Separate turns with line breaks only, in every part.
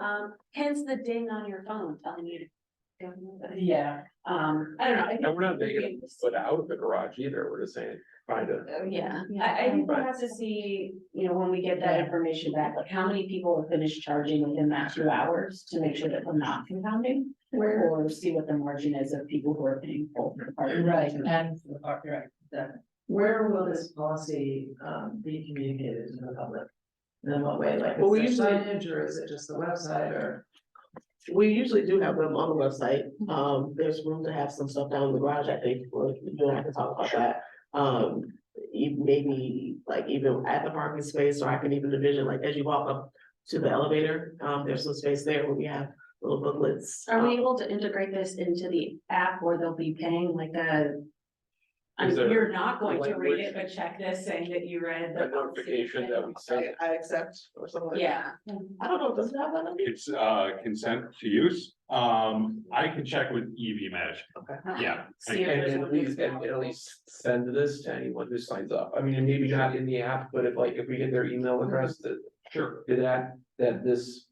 Um, hence the ding on your phone telling you. to
Yeah,
Um, I don't know. I
And we're not
think-
making a foot out of the garage either, we're just saying, find a,
Oh, Yeah, I, I think we'll have to see, you know, when we get that information back, like how many people have finished charging within that two hours to make sure that we're not compounding.
Where-
Or see what the margin is of people who are paying full. or-
right, and, uh, right, that- where will this policy, um, be communicated to the public? In what way, like,
Well, we
is there
usually-
signage, or is it just the website, or?
We usually do have them on the website. Um, there's room to have some stuff down in the garage, I think, or you don't have to talk about that. Um, e- maybe like even at the parking space, or I can even envision like as you walk up to the elevator, um, there's some space there where we have little booklets.
Are we
um,
able to integrate this into the app where they'll be paying like a? I
Is
mean,
there
you're not going to read
language?
it, but check this saying that you read. the
a notification that we
I,
send.
I accept or something like that.
Yeah,
I don't know, does it have that? on it?
It's uh consent to use. Um, I can check with E EV Match. Yeah.
see if
And
there's
at
one
least,
that's
and at least send this to anyone who signs up, I mean, and maybe not in the app, but if like, if we get their email address that. Sure. That, that this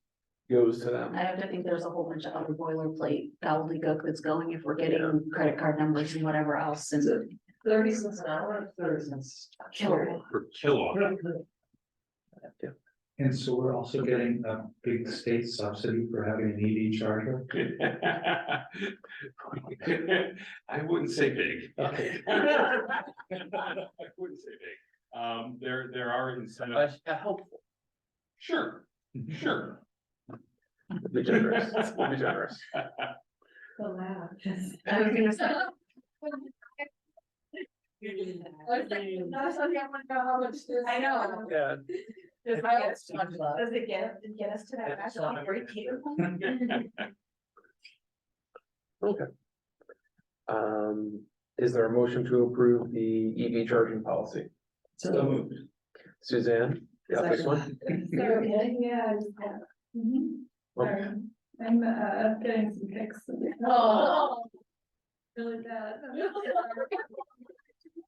goes to them.
I have to think there's a whole bunch of other boilerplate gobbledygook that's going if we're getting credit card numbers and whatever else and.
Thirty cents an hour, or thirty cents.
Killer.
Per kilowatt.
And so we're also getting a big state subsidy for having an EV charger.
I wouldn't say big. I wouldn't say big. Um, there, there are incentives.
But
uh,
helpful.
Sure, sure.
Be generous, be generous.
I was gonna say, I know.
Yeah.
Does it
I
get-
always talked about.
does it get, get us to that?
That's
magical
not-
break-even?
Um, is there a motion to approve the EV charging policy?
So moved.
Suzanne, you got this one?
Okay, yeah, I just have- sorry. I'm uh getting some pics. of it.
Oh.
Really bad.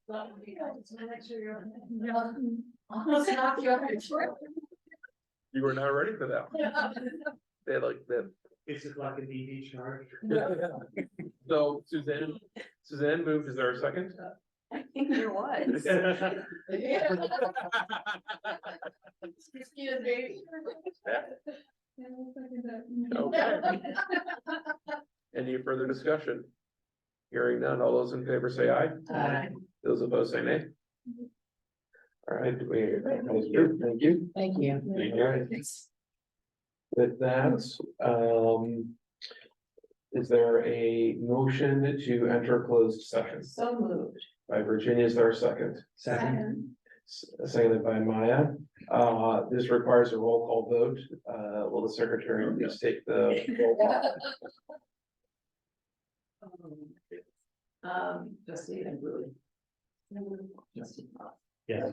Almost knocked you off your chair.
You were not ready for that. one. They had like that.
Is it like an EV charger?
So Suzanne, Suzanne moved, is there a second?
I think there was.
Excuse me.
Yeah, I'll second that.
Okay. Any further discussion? Hearing none, all those in favor say aye,
Aye.
those opposed say nay. All right, we, thank you, thank you.
Thank you.
Thank
All right, with that, um. Is there a motion to enter closed session?
So moved.
By Virginia, is there a second?
Second.
S- Seconded by Maya. Uh, this requires a roll call vote. Uh, will the secretary please take the roll call?
Um, trustee and Willie. Trustee Bob.
Yeah.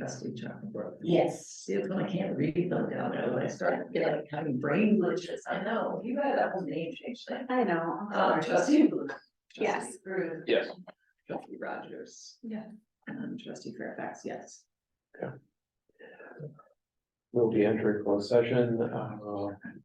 Trustee Chuckenbrook.
Yes.
See, it's when I can't read them down there, when I start to get like having brain glitches, I know, you had that whole name change thing.
I know. I'm
Um,
sorry.
trustee Blue.
Yes.
Trustee Brew.
Yes.
Trustee Rogers.
Yeah.
And trustee Fairfax, yes.
We'll be entering closed session, uh,